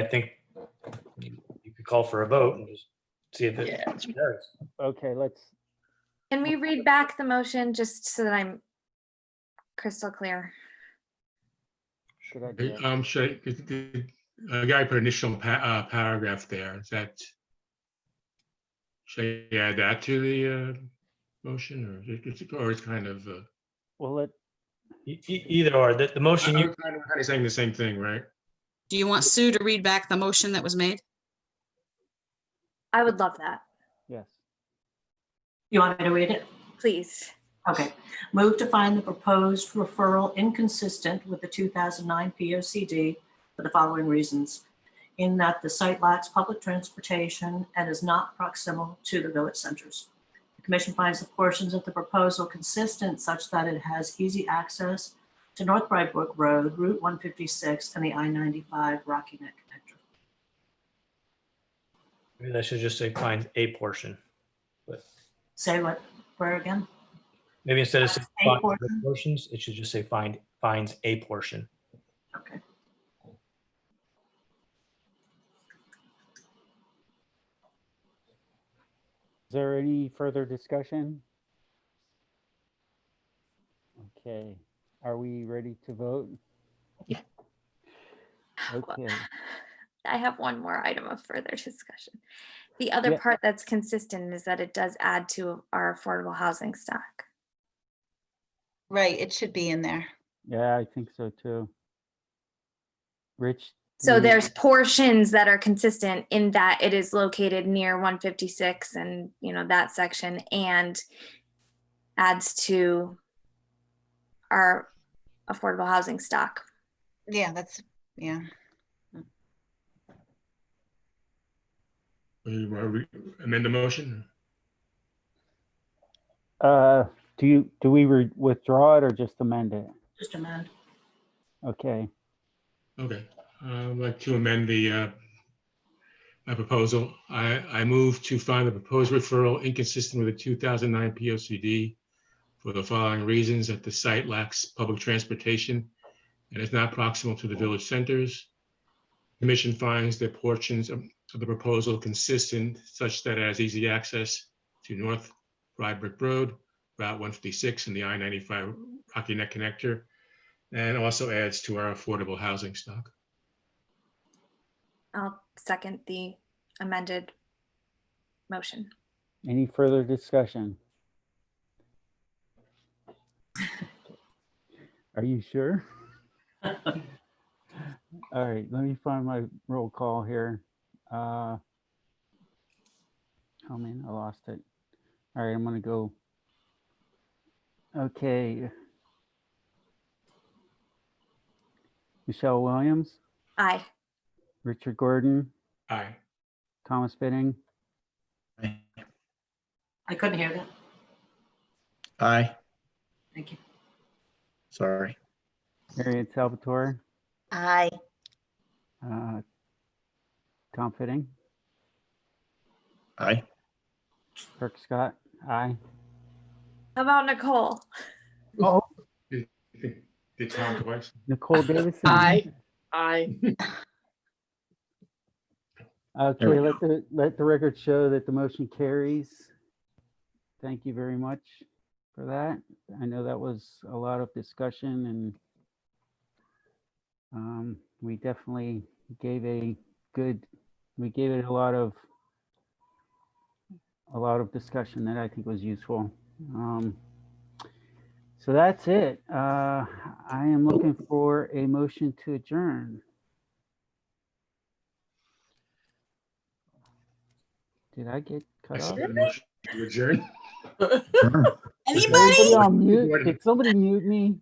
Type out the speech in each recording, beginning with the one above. I think you could call for a vote and just see if it Yeah. carries. Okay, let's, Can we read back the motion just so that I'm crystal clear? should I do it? I'm sure, Um, the- the- the guy put initial pa- uh, paragraph there, is that? Should I add that to the uh, motion or it- it's, or it's kind of, uh, Well, let, E- e- Either or, the, the I'm motion kind you, of kind of saying the same thing, right? Do you want Sue to read back the motion that was made? I would love that, yes, You want me to read it? please. Okay. Move to find the proposed referral inconsistent with the 2009 POCD for the following reasons. In that the site lacks public transportation and is not proximal to the village centers. The commission finds the portions of the proposal consistent such that it has easy access to North Brightbrook Road, Route 156, and the I-95 Rocky Neck connector. maybe that should just say find a portion. Say what, where again? Maybe instead of saying A find the portion. portions, it should just say find, finds a portion. Okay. is there any further discussion? Okay, are we ready to vote? Yeah. Okay, I have one more item of further discussion. The other Yeah. part that's consistent is that it does add to our affordable housing stock. Right, it should be in there. yeah, I think so too. Rich? do So you- there's portions that are consistent in that it is located near 156 and, you know, that section and adds to our affordable housing stock. Yeah, that's, yeah. Or you wanna re- Amend the motion? Uh, do you, do we re- withdraw it or just amend it? Just amend. Okay, Okay, I'd like to amend the, uh, my proposal. I, I move to find the proposed referral inconsistent with the 2009 POCD for the following reasons, that the site lacks public transportation and is not proximal to the village centers. Commission finds that portions of of the proposal consistent such that it has easy access to North Rybrook Road, Route 156, and the I-95 Rocky Neck Connector, and also adds to our affordable housing stock. I'll second the amended motion. any further discussion? Are you sure? All right, let me find my roll call here. Uh Oh man, I lost it. All right, I'm gonna go. Okay. Michelle Williams, Aye. Richard Gordon, Aye. Thomas Fitting, I couldn't hear that. Aye, Thank you. sorry. Harriet Salvatore, I uh, Tom Fitting, Aye. Kirk Scott, aye. How about Nicole? Oh, Did Tom twice? Nicole Davidson. Aye. I we Okay, go. let the, let the record show that the motion carries. Thank you very much for that. I know that was a lot of discussion and um, we definitely gave a good, we gave it a lot of a lot of discussion that I think was useful. Um, so that's it. Uh, I am looking for a motion to adjourn. Did I get cut off? Adjourn. Is Anybody? Everybody on mute? Jordan. Did somebody mute me?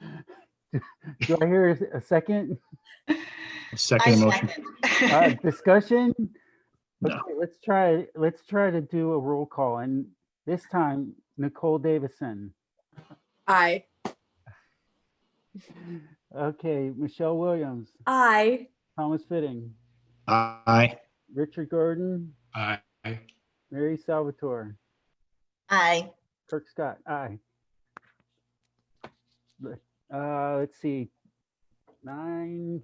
Do I hear a- a second I Second motion. uh, second. discussion? No. Okay, let's try, let's try to do a roll call and this time Nicole Davison. I Okay, Michelle Williams, Aye. Thomas Fitting, Aye. Richard Gordon, Aye. Mary Salvatore, I. Kirk Scott, aye. Let- Uh, let's see, nine